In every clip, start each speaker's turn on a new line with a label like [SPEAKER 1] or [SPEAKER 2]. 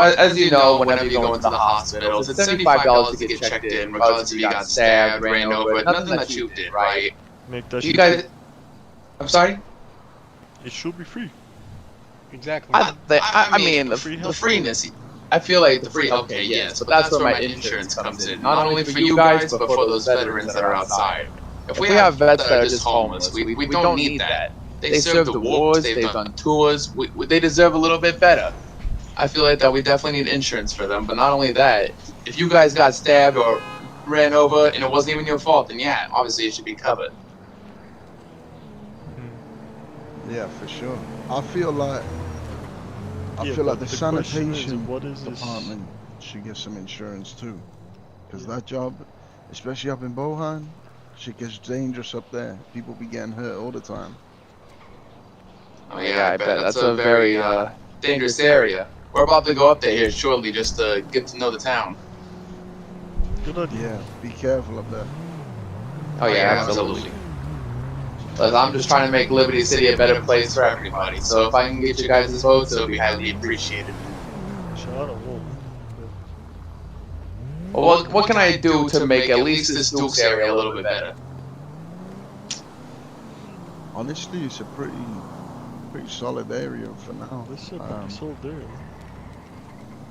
[SPEAKER 1] As, as you know, whenever you go into the hospitals, it's seventy-five dollars to get checked in, regardless if you got stabbed, ran over, nothing that you did, right?
[SPEAKER 2] Mate, that
[SPEAKER 1] You
[SPEAKER 2] should
[SPEAKER 1] guys, I'm sorry.
[SPEAKER 2] be, it should be free.
[SPEAKER 3] Exactly.
[SPEAKER 1] I, the, I, I mean, the,
[SPEAKER 2] free
[SPEAKER 1] the
[SPEAKER 2] health-
[SPEAKER 1] freeness. I feel like the free. Okay, yes, but that's where my insurance comes in. Not only for you guys, but for those veterans that are outside. If we have vets that are just homeless, we, we don't need that. They served the wars. They've done tours. We, we, they deserve a little bit better. I feel like that we definitely need insurance for them. But not only that, if you guys got stabbed or ran over and it wasn't even your fault, then yeah, obviously it should be covered.
[SPEAKER 4] Yeah, for sure. I feel like I
[SPEAKER 2] Yeah,
[SPEAKER 4] feel like
[SPEAKER 2] but
[SPEAKER 4] the,
[SPEAKER 2] question is,
[SPEAKER 4] sanitation
[SPEAKER 2] what is this-
[SPEAKER 4] department should get some insurance too, because that job, especially up in Bohan, shit gets dangerous up there. People be getting hurt all the time.
[SPEAKER 1] Oh yeah, I bet that's, a very uh, dangerous area. We're about to go up there here shortly just to get to know the town.
[SPEAKER 2] Good idea.
[SPEAKER 4] Yeah, be careful up there.
[SPEAKER 1] Oh yeah, absolutely. But I'm just trying to make Liberty City a better place for everybody. So if I can get you guys' votes, it'll be highly appreciated.
[SPEAKER 2] Shot a wolf.
[SPEAKER 1] Well, what, what can I do to make at least this Dukes area a little bit better?
[SPEAKER 4] Honestly, it's a pretty pretty solid area for now.
[SPEAKER 2] This is
[SPEAKER 4] Um,
[SPEAKER 2] um, sold there.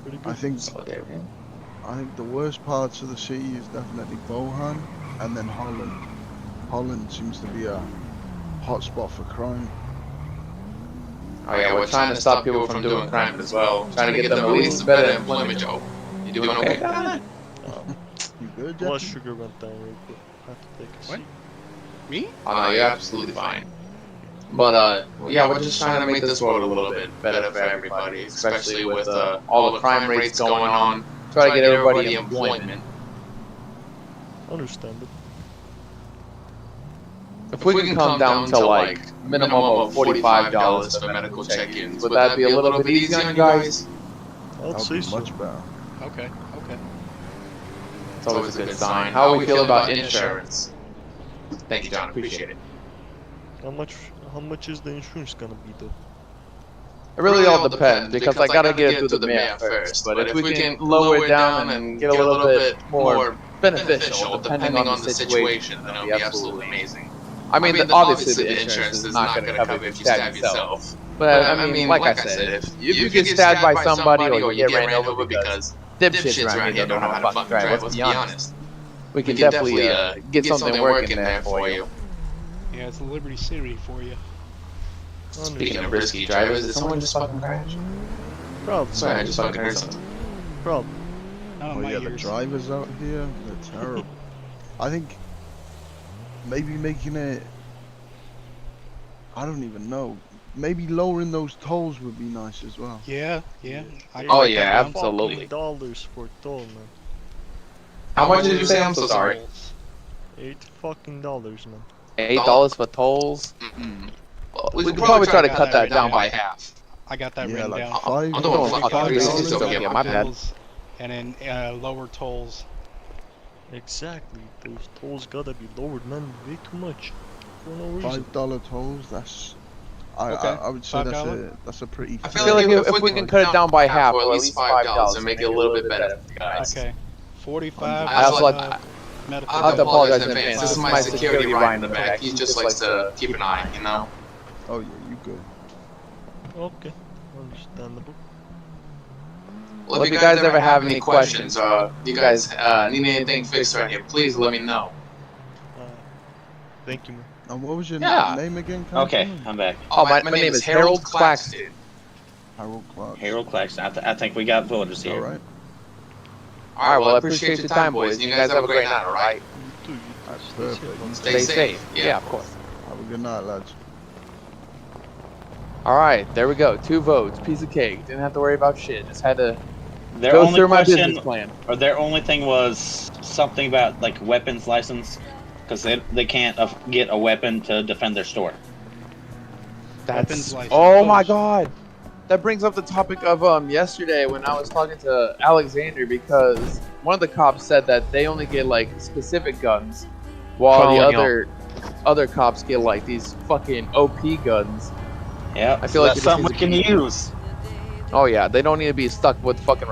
[SPEAKER 2] Pretty good.
[SPEAKER 4] I think
[SPEAKER 1] Okay, man.
[SPEAKER 4] I think the worst parts of the city is definitely Bohan and then Holland. Holland seems to be a hotspot for crime.
[SPEAKER 1] Oh yeah, we're trying to stop people from doing crimes as well. Trying to get them at least a better employment job. You doing okay?
[SPEAKER 4] You good, Jeffy?
[SPEAKER 2] Blood sugar went down real quick. I have to take a
[SPEAKER 3] What?
[SPEAKER 2] seat.
[SPEAKER 3] Me?
[SPEAKER 1] Oh no, you're absolutely fine. But uh, yeah, we're just trying to make this world a little bit better for everybody, especially with uh, all the crime rates going on. Try to get everybody employment.
[SPEAKER 2] Understand it.
[SPEAKER 1] If we can come down to like minimum of forty-five dollars for medical check-ins, would that be a little bit easier on you guys?
[SPEAKER 2] I'll
[SPEAKER 4] That'll
[SPEAKER 2] say
[SPEAKER 4] be
[SPEAKER 2] so.
[SPEAKER 4] much better.
[SPEAKER 3] Okay. Okay.
[SPEAKER 1] It's always a good sign. How we feel about insurance? Thank you, John. Appreciate it.
[SPEAKER 2] How much? How much is the insurance gonna be though?
[SPEAKER 5] It really all depends because I gotta get it through the mayor first. But if we can lower it down and get a little bit more beneficial, depending on the situation,
[SPEAKER 1] then it'll
[SPEAKER 5] it'll
[SPEAKER 1] be
[SPEAKER 5] be
[SPEAKER 1] absolutely amazing.
[SPEAKER 5] I mean, the, obviously the insurance is not gonna cover if you stab yourself. But I mean, like I said, if, if you get stabbed by somebody or you get ran over because
[SPEAKER 1] dipshits around here don't know how to fucking drive. Let's be honest.
[SPEAKER 5] we can definitely uh, get something working there for you.
[SPEAKER 3] Yeah, it's a Liberty City for you.
[SPEAKER 1] Speaking
[SPEAKER 2] Understand.
[SPEAKER 1] of risky drivers, did someone just fucking crash?
[SPEAKER 2] Problem.
[SPEAKER 1] Sorry, I just fucking heard something.
[SPEAKER 2] Problem.
[SPEAKER 3] Not on
[SPEAKER 4] Oh
[SPEAKER 3] my
[SPEAKER 4] yeah, the
[SPEAKER 3] ears.
[SPEAKER 4] drivers out here, they're terrible. I think maybe making it. I don't even know. Maybe lowering those tolls would be nice as well.
[SPEAKER 3] Yeah. Yeah. I
[SPEAKER 1] Oh,
[SPEAKER 3] write that
[SPEAKER 1] yeah,
[SPEAKER 3] down.
[SPEAKER 1] absolutely.
[SPEAKER 2] Dollars for a toll, man.
[SPEAKER 1] How much did you say? I'm so sorry.
[SPEAKER 2] Eight fucking dollars, man.
[SPEAKER 5] Eight dollars for tolls.
[SPEAKER 1] Mm-mm.
[SPEAKER 5] We could probably try to cut that down by
[SPEAKER 1] half.
[SPEAKER 3] I got that
[SPEAKER 4] yeah,
[SPEAKER 3] written
[SPEAKER 4] like
[SPEAKER 3] down.
[SPEAKER 4] five.
[SPEAKER 1] I'm doing
[SPEAKER 4] five
[SPEAKER 1] fucking
[SPEAKER 3] Cut
[SPEAKER 1] three
[SPEAKER 3] down
[SPEAKER 1] sixties
[SPEAKER 3] on
[SPEAKER 1] over here. My bad.
[SPEAKER 3] bills And then uh, lower tolls.
[SPEAKER 2] Exactly. Those tolls gotta be lowered, man. Way too much. For no reason.
[SPEAKER 4] Five dollar tolls. That's. I,
[SPEAKER 3] Okay,
[SPEAKER 4] I, I would say that's
[SPEAKER 3] $5.
[SPEAKER 4] a that's a pretty.
[SPEAKER 1] I
[SPEAKER 5] I
[SPEAKER 1] feel
[SPEAKER 5] feel
[SPEAKER 1] like
[SPEAKER 5] like
[SPEAKER 1] if-
[SPEAKER 5] if,
[SPEAKER 1] if
[SPEAKER 5] we can cut it down by half, or at least five dollars,
[SPEAKER 1] and
[SPEAKER 5] and make it a little bit better for you guys.
[SPEAKER 3] Okay. Forty-five.
[SPEAKER 1] I also
[SPEAKER 3] uh,
[SPEAKER 5] like-
[SPEAKER 3] medical.
[SPEAKER 1] I have to
[SPEAKER 5] I'll
[SPEAKER 1] apologize in
[SPEAKER 5] apologize
[SPEAKER 1] advance. This is my security Ryan in the back. He just likes to keep an eye, you know?
[SPEAKER 4] Oh yeah, you good.
[SPEAKER 2] Okay. Understandable.
[SPEAKER 1] Well, if you guys ever have any questions or you guys uh, need anything fixed right here, please let me know.
[SPEAKER 2] Uh, thank you, man.
[SPEAKER 4] And what was your
[SPEAKER 1] Yeah.
[SPEAKER 4] name again? Captain?
[SPEAKER 6] Okay, I'm back.
[SPEAKER 1] Oh, my, my name is Harold Claxton.
[SPEAKER 4] Harold Clark.
[SPEAKER 6] Harold Claxton. I, th- I think we got villagers
[SPEAKER 4] All
[SPEAKER 6] here.
[SPEAKER 4] right.
[SPEAKER 1] All right, well, I appreciate your time, boys. and You guys have a great night, all right?
[SPEAKER 2] You too. You too. Stay
[SPEAKER 4] That's
[SPEAKER 2] safe,
[SPEAKER 4] perfect.
[SPEAKER 2] man.
[SPEAKER 1] Stay safe.
[SPEAKER 5] Yeah,
[SPEAKER 1] Yeah.
[SPEAKER 5] of course.
[SPEAKER 4] Have a good night, lads.
[SPEAKER 5] All right, there we go. Two votes, piece of cake. Didn't have to worry about shit. Just had to
[SPEAKER 6] Their
[SPEAKER 5] go
[SPEAKER 6] only
[SPEAKER 5] through my
[SPEAKER 6] question,
[SPEAKER 5] business plan.
[SPEAKER 6] or their only thing was something about like weapons license, because they they can't uh, get a weapon to defend their store.
[SPEAKER 5] That's
[SPEAKER 3] Weapons license.
[SPEAKER 5] oh my god. That brings up the topic of um yesterday when I was talking to Alexander because one of the cops said that they only get like specific guns, while
[SPEAKER 6] Calling
[SPEAKER 5] the other other cops get like these fucking OP guns.
[SPEAKER 6] Yeah,
[SPEAKER 5] I feel like it just
[SPEAKER 6] someone
[SPEAKER 5] needs
[SPEAKER 6] can
[SPEAKER 5] to be-
[SPEAKER 6] use.
[SPEAKER 1] Oh yeah, they don't need to be stuck with fucking